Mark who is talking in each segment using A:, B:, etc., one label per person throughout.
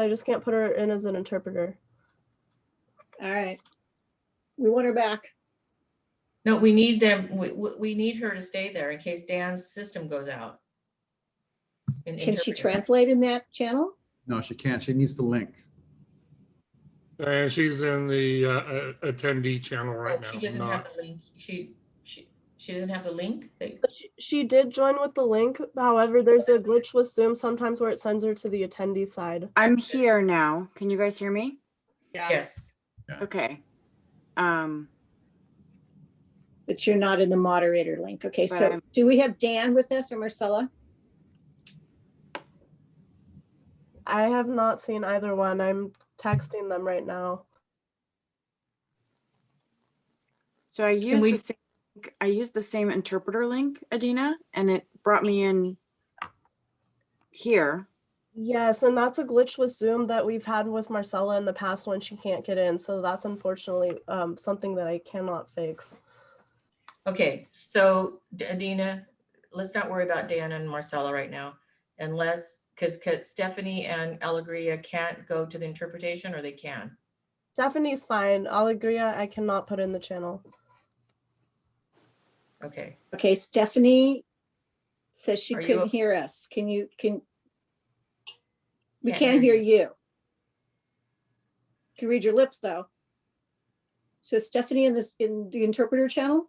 A: I just can't put her in as an interpreter.
B: All right. We want her back.
C: No, we need them, we, we, we need her to stay there in case Dan's system goes out. An
B: Can she
C: interpreter.
B: translate in that channel?
D: No, she can't. She needs the link.
E: And she's in the uh, uh, attendee channel
C: Oh,
E: right now.
C: She doesn't
E: not-
C: have the link, she, she, she doesn't have the link? They-
A: But She, she did join with the link. However, there's a glitch with Zoom sometimes where it sends her to the attendee side.
F: I'm here now. Can you guys hear me?
C: Yes,
F: Okay. Um,
B: But you're not in the moderator link. Okay,
F: But
B: so
F: I'm-
B: do we have Dan with us or Marcella?
A: I have not seen either one. I'm texting them right now.
F: so I used
C: we-
F: the same, I used the same interpreter link, Adina, and it brought me in here.
A: Yes, and that's a glitch with Zoom that we've had with Marcella in the past when she can't get in. So that's unfortunately um, something that I cannot fix.
C: okay, so D- Adina, let's not worry about Dan and Marcella right now. Unless, because Stephanie and Allegria can't go to the interpretation or they can.
A: Stephanie's fine. Allegria, I cannot put in the channel.
C: Okay,
B: Okay, Stephanie says she
C: Are you
B: couldn't
C: up?
B: hear us. Can you, can? We
C: Can't
B: can't
C: hear
B: hear you. Can read your lips, though. So Stephanie in this, in the interpreter channel?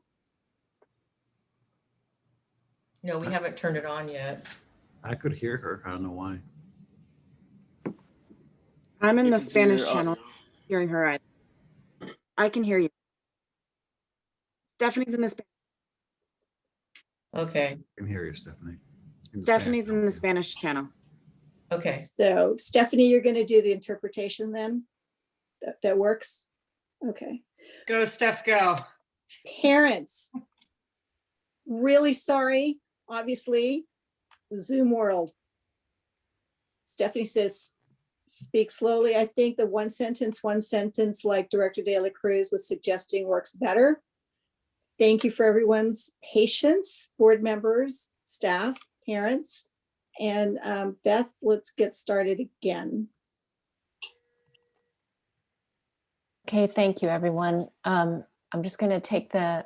C: no,
E: Uh.
C: we haven't turned it on yet.
D: I could hear her. I don't know why.
F: I'm in
G: You
F: the
G: can see your
F: Spanish channel,
G: audio.
F: hearing her. I, I can hear you. Stephanie's in the, Sp-
C: Okay,
D: I can hear you, Stephanie. In the Spanish.
F: Stephanie's in the Spanish channel.
C: okay,
B: So Stephanie, you're gonna do the interpretation then? That, that works? Okay.
H: Go, Steph, go.
B: parents. Really sorry, obviously, Zoom world. Stephanie says, speak slowly. I think the one sentence, one sentence like Director De La Cruz was suggesting works better. Thank you for everyone's patience, board members, staff, parents. And um, Beth, let's get started again.
I: Okay, thank you, everyone. Um, I'm just going to take the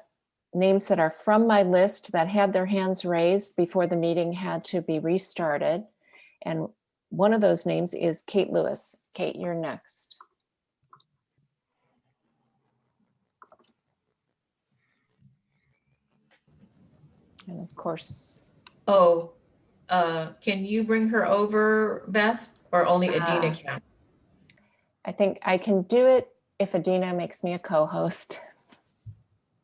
I: names that are from my list that had their hands raised before the meeting had to be restarted. And one of those names is Kate Lewis. Kate, you're next. And of course,
C: oh, uh, can you bring her over, Beth, or only Adina
I: Ah.
C: can?
I: I think I can do it if Adina makes me a co-host.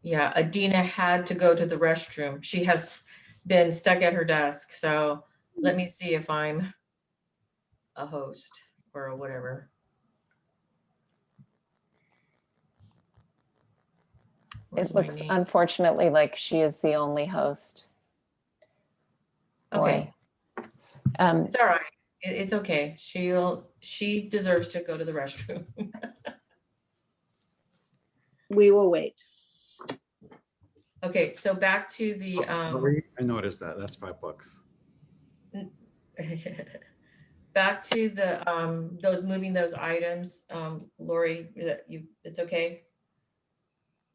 C: Yeah, Adina had to go to the restroom. She has been stuck at her desk, so let me see if I'm a host or whatever. Where's
I: It
C: my
I: looks
C: name?
I: unfortunately like she is the only host.
C: Okay,
I: Boy. Um,
C: it's all right. It- It's okay. She'll, she deserves to go to the restroom.
B: We will wait.
C: Okay, so back to the,
D: Oh,
C: um.
D: Marie, I noticed that. That's five bucks.
C: Back to the, um, those, moving those items, um, Lori, is that you, it's okay?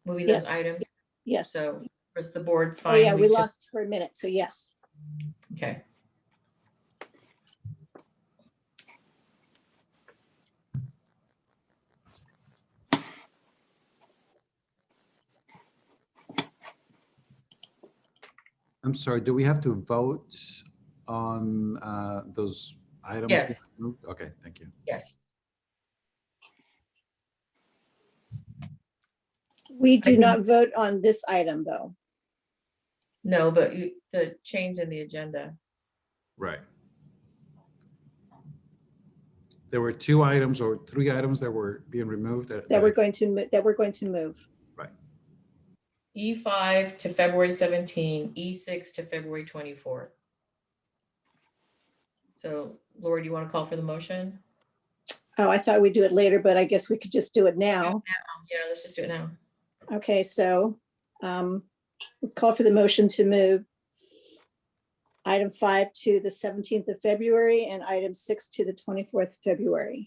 C: Moving those
B: Yes.
C: items,
B: Yes.
C: so, first the board's
B: Oh,
C: fine.
B: yeah, we
C: just-
B: lost for a minute. So yes.
C: Okay,
D: I'm sorry. Do we have to vote on uh, those items?
C: Yes.
D: being moved? Okay, thank you.
C: yes,
B: We do
C: can-
B: not vote on this item, though.
C: no, but you, the change in the agenda,
D: Right. There were two items or three items that were being removed.
B: That we're going to, mo- that we're going to move.
C: E five to February seventeen, E six to February twenty-fourth. So Lori, do you want to call for the motion?
B: Oh, I thought we'd do it later, but I guess we could just do it now.
C: Yeah, let's just do it now.
B: Okay, so um, let's call for the motion to move item five to the seventeenth of February, and item six to the twenty-fourth of February.